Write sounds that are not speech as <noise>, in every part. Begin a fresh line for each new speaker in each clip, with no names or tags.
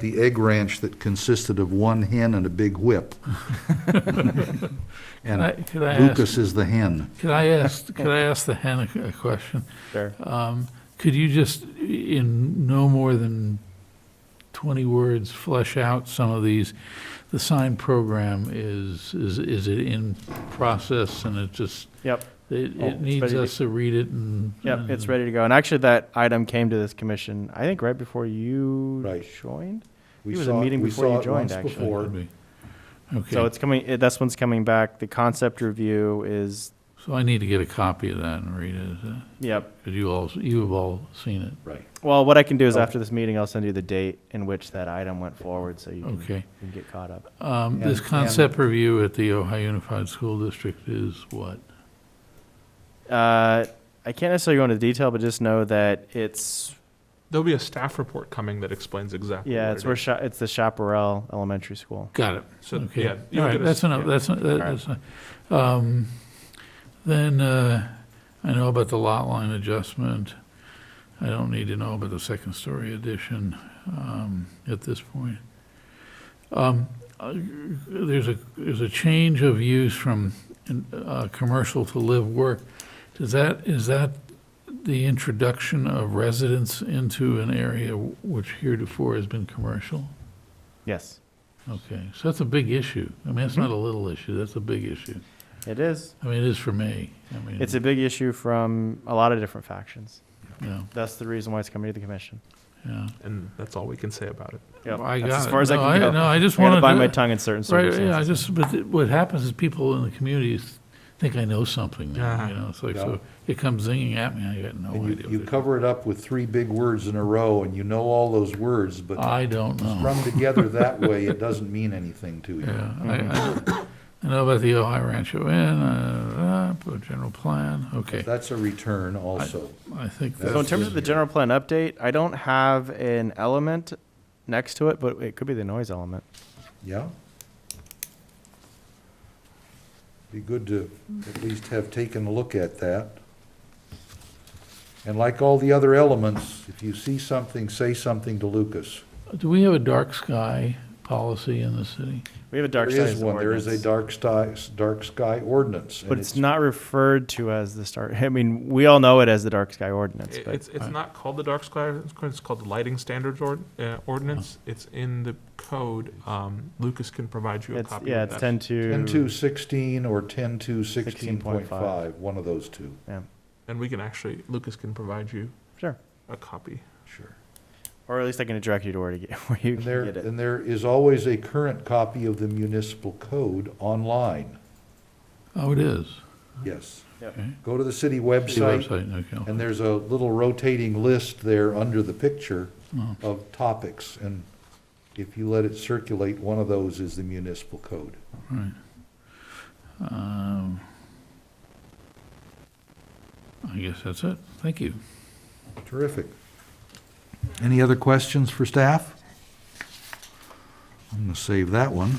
the egg ranch that consisted of one hen and a big
<laughs>
whip.
Can I-
And
can I ask-
Lucas is the hen.
Could I ask, could I ask the Hannah a question?
Sure.
Um, Could you just, in no more than 20 words, flesh out some of these? The sign program is, is is it in process and it just,
Yep,
it
Oh,
it
it's
needs
ready to-
us to read it and.
yep, it's
and-
ready to go. And actually, that item came to this commission, I think, right before you
Right.
joined?
We
It was a
saw-
meeting
we
before
saw
you
it
joined,
once
actually.
before.
Could be.
So
Okay,
it's coming, it- this one's coming back. The concept review is,
so I need to get a copy of that and read it,
yep.
because you all, you have all seen it.
Right.
Well, what I can do is
Okay.
after this meeting, I'll send you the date in which that item went forward, so you can-
Okay.
you can get caught up.
Um, This
And- and-
concept review at the Ohio Unified School District is what?
Uh, I can't necessarily go into detail, but just know that it's,
There'll be a staff report coming that explains exactly.
yeah,
what
it's
it
where,
is.
Sha- it's the Chaparral Elementary School.
Got it.
So,
Okay.
yeah, you'll
All right,
get a-
that's enough,
yeah.
that's, that- that's, um, then, uh, I know about the lot line adjustment. I don't need to know about the second story addition, um, at this point. Um, uh, there's a, there's a change of use from, uh, commercial to live work. Does that, is that the introduction of residents into an area which heretofore has been commercial?
Yes,
Okay, so that's a big issue. I mean, that's not a
Mm-hmm.
little issue, that's a big issue.
it is.
I mean, it is for me. I mean,
It's a big issue from a lot of different factions.
Yeah,
That's the reason why it's coming to the commission.
yeah.
And that's all we can say about it.
Yep,
Well, I
that's
got
as
it.
far as I
No,
can go.
No, I just
I gotta
wanted to.
bite my tongue in certain
Right,
circumstances.
yeah, I just, but th- what happens is people in the community s- think I know something now, you
Uh-huh.
know, it's like,
Yeah.
so it comes zinging at me, Oh, I got no
And
idea.
you, you
what it-
cover it up with three big words in a row, and you know all those words, but
I don't know.
strung together that way, it doesn't mean anything to you.
Yeah, I,
Mm-hmm.
I, I know about the Ohio Rancho Inn, uh, uh, uh, general plan, okay.
That's a return also.
I think that's.
So in terms of the general plan update, I don't have an element next to it, but it could be the noise element.
Yeah? Be good to at least have taken a look at that. And like all the other elements, if you see something, say something to Lucas.
Do we have a dark sky policy in the city?
We have a dark
There
sky
is one, there is a
ordinance,
dark sky, dark sky ordinance. and
But it's not referred to as the star, I mean, we all know it as the dark sky ordinance,
It-
but
It's, it's not called the dark sky, ordinance, it's called the lighting standards ord- uh, ordinance.
Uh-huh.
It's in the code. Um, Lucas can provide you a
it's,
copy
yeah,
of
it's
that.
ten to.
Ten to sixteen or ten to sixteen point
16.5.
five, one of those two.
And we can actually, Lucas can provide you
Sure,
a copy.
Sure.
or at least I can direct you to where to get, where you
And there,
can get it.
and there is always a current copy of the municipal code online,
Oh, it is.
yes.
Okay.
Go to the city
City
website,
Website, okay.
And there's a little rotating list there under the picture
Oh.
of topics, and if you let it circulate, one of those is the municipal code.
Right. Um, I guess that's it. Thank you.
Terrific. Any other questions for staff? I'm gonna save that one.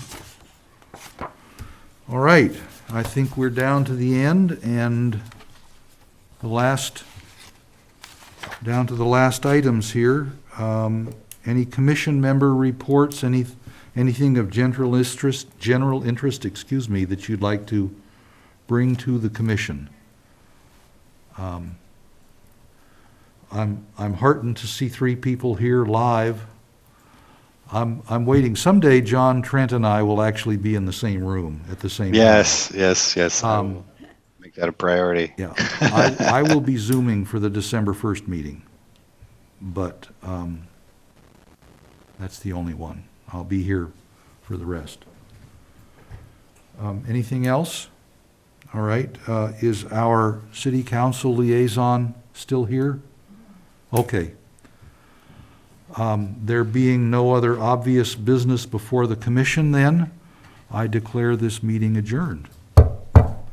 All right, I think we're down to the end, and the last, down to the last items here. Um, Any commission member reports, any, anything of general interest, general interest, excuse me, that you'd like to bring to the commission? Um, I'm, I'm heartened to see three people here live. I'm, I'm waiting, someday John Trent and I will actually be in the same room at the same. time.
Yes, yes, yes. I
Um,
will make that a priority.
Yeah, I, I will be zooming for the December first meeting, but, um, that's the only one. I'll be here for the rest. Um, anything else? All right, uh, is our city council liaison still here? Okay. Um, there being no other obvious business before the commission then, I declare this meeting adjourned.